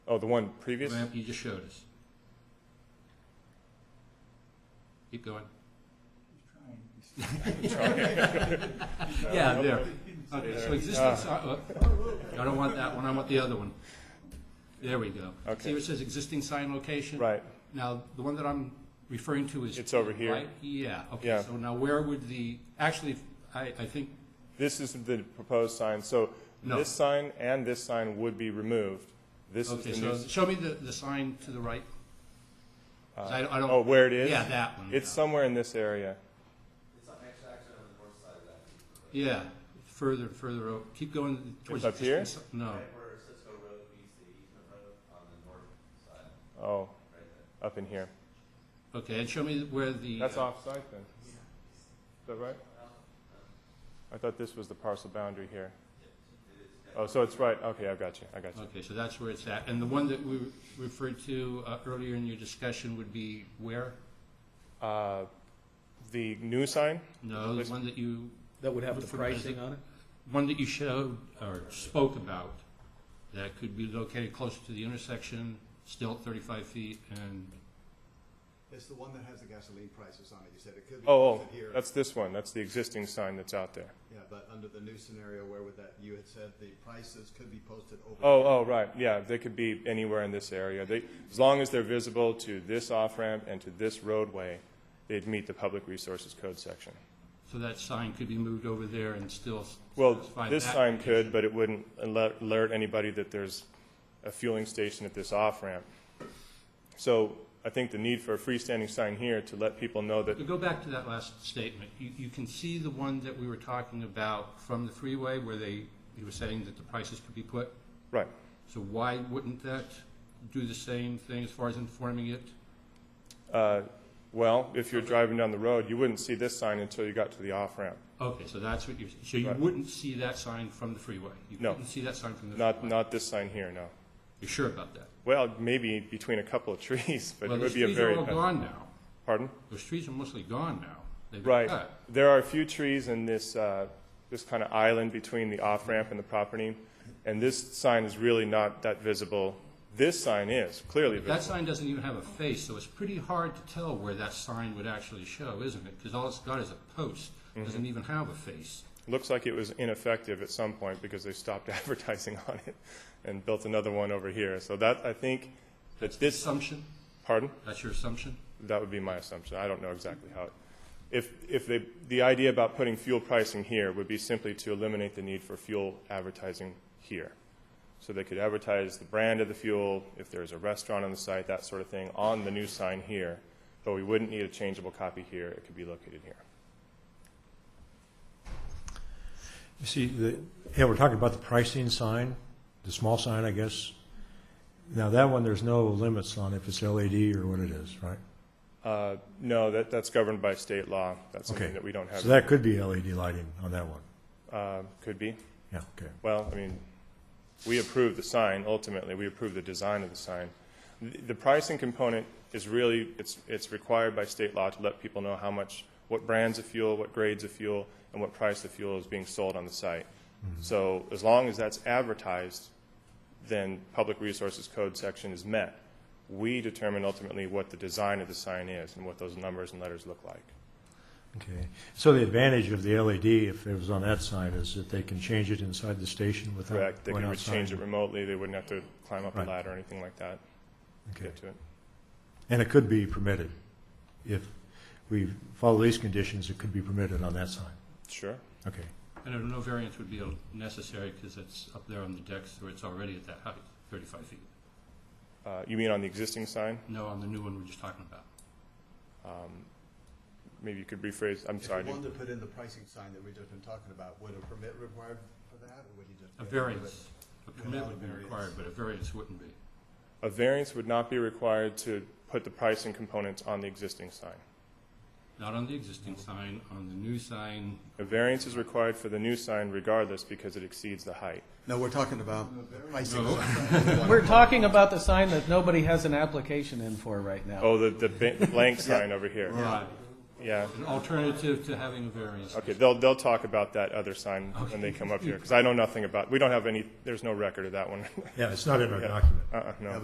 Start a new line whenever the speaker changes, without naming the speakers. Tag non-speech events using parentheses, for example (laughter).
Oh, the one previous?
ramp you just showed us. Keep going. Yeah, there. Okay, so existing, si- uh, I don't want that one, I want the other one. There we go.
Okay.
See where it says existing sign location?
Right.
Now, the one that I'm referring to is.
It's over here.
right? Yeah, okay,
Yeah.
so now where would the, actually, I, I think,
This is the proposed sign, so
No.
this sign and this sign would be removed. This is
okay,
the new,
so show me the, the sign to the right. 'Cause I don't- I don't-
oh, where it is?
Yeah, that one.
It's somewhere in this area.
Yeah, further, further, o- keep going towards.
It's up here?
existing si- No,
Where Cisco Road meets the Eastman Road on the north side,
Oh,
right there.
up in here.
okay, and show me where the.
That's
uh,
off-site then? Is that right? I thought this was the parcel boundary here. Oh, so it's right, okay, I got you, I got you.
Okay, so that's where it's at. And the one that we referred to uh, earlier in your discussion would be where?
Uh, The new sign?
No, the one that you,
That would have the
For-
pricing on it?
one that you showed or spoke about that could be located closer to the intersection, still at 35 feet and,
It's the one that has the gasoline prices on it. You said it could be
Oh, oh,
posted here.
that's this one, that's the existing sign that's out there.
Yeah, but under the new scenario, where would that, you had said the prices could be posted over.
Oh, oh, right, yeah, they could be anywhere in this area. They, as long as they're visible to this off-ramp and to this roadway, they'd meet the Public Resources Code section.
so that sign could be moved over there and still s-
Well,
satisfy
this
that
sign
condition.
could, but it wouldn't alert alert anybody that there's a fueling station at this off-ramp. So I think the need for a freestanding sign here to let people know that,
To go back to that last statement, you, you can see the one that we were talking about from the freeway where they, you were saying that the prices could be put?
right,
So why wouldn't that do the same thing as far as informing it?
uh, well, if you're driving down the road, you wouldn't see this sign until you got to the off-ramp.
Okay, so that's what you're, so you
Right.
wouldn't see that sign from the freeway?
No.
You couldn't see that sign from the
Not,
freeway?
not this sign here, no.
You're sure about that?
Well, maybe between a couple of (laughs) trees, but
Well,
it
those
would be a
trees
very...
are all gone now.
Pardon?
Those trees are mostly gone now. They've been
Right.
cut.
There are a few trees in this, uh, this kind of island between the off-ramp and the property, and this sign is really not that visible. This sign is clearly
That
visible.
sign doesn't even have a face, so it's pretty hard to tell where that sign would actually show, isn't it? Because all it's got is a post,
Mm-hmm.
doesn't even have a face.
Looks like it was ineffective at some point because they stopped (laughs) advertising on it and built another one over here. So that, I think, that this,
Assumption?
pardon?
That's your assumption?
That would be my assumption. I don't know exactly how. it- If, if they, the idea about putting fuel pricing here would be simply to eliminate the need for fuel advertising here. So they could advertise the brand of the fuel, if there's a restaurant on the site, that sort of thing, on the new sign here. But we wouldn't need a changeable copy here. It could be located here.
You see, the, yeah, we're talking about the pricing sign, the small sign, I guess. Now, that one, there's no limits on if it's LED or what it is, right?
Uh, no, that, that's governed by state law. That's something
Okay.
that we don't have.
So that could be LED lighting on that one.
Uh, could be.
Yeah, okay.
Well, I mean, we approve the sign, ultimately, we approve the design of the sign. The the pricing component is really, it's, it's required by state law to let people know how much, what brands of fuel, what grades of fuel, and what price the fuel is being sold on the site.
Mm-hmm.
So as long as that's advertised, then Public Resources Code section is met. We determine ultimately what the design of the sign is and what those numbers and letters look like.
Okay. So the advantage of the LED, if it was on that sign, is that they can change it inside the station without going
Correct?
outside?
They can change it remotely, they wouldn't have to climb up a
Right.
ladder or anything like that to
Okay.
get to it.
And it could be permitted. If we follow these conditions, it could be permitted on that sign.
Sure.
Okay.
And no variance would be necessary because it's up there on the deck, so it's already at that height, 35 feet.
Uh, You mean on the existing sign?
No, on the new one we're just talking about.
Maybe you could rephrase, I'm
If
sorry. I
you
didn't-
wanted to put in the pricing sign that we've just been talking about, would a permit required for that, or would you just?
A variance, a permit
Without
would be
variance.
required, but a variance wouldn't be.
A variance would not be required to put the pricing components on the existing sign.
Not on the existing sign, on the new sign,
A variance is required for the new sign regardless because it exceeds the height.
No, we're talking about the pricing.
(laughs)
(laughs)
We're talking about the sign that nobody has an application in for right now.
Oh, the, the ba-
(laughs)
blank sign over here.
right,
Yeah.
an alternative to having a variance.
Okay, they'll, they'll talk about that other sign when they
(laughs)
come up here because I know nothing about, we don't have any, there's no record of that one.
Yeah, it's not in our document.
(laughs) Uh-uh, no.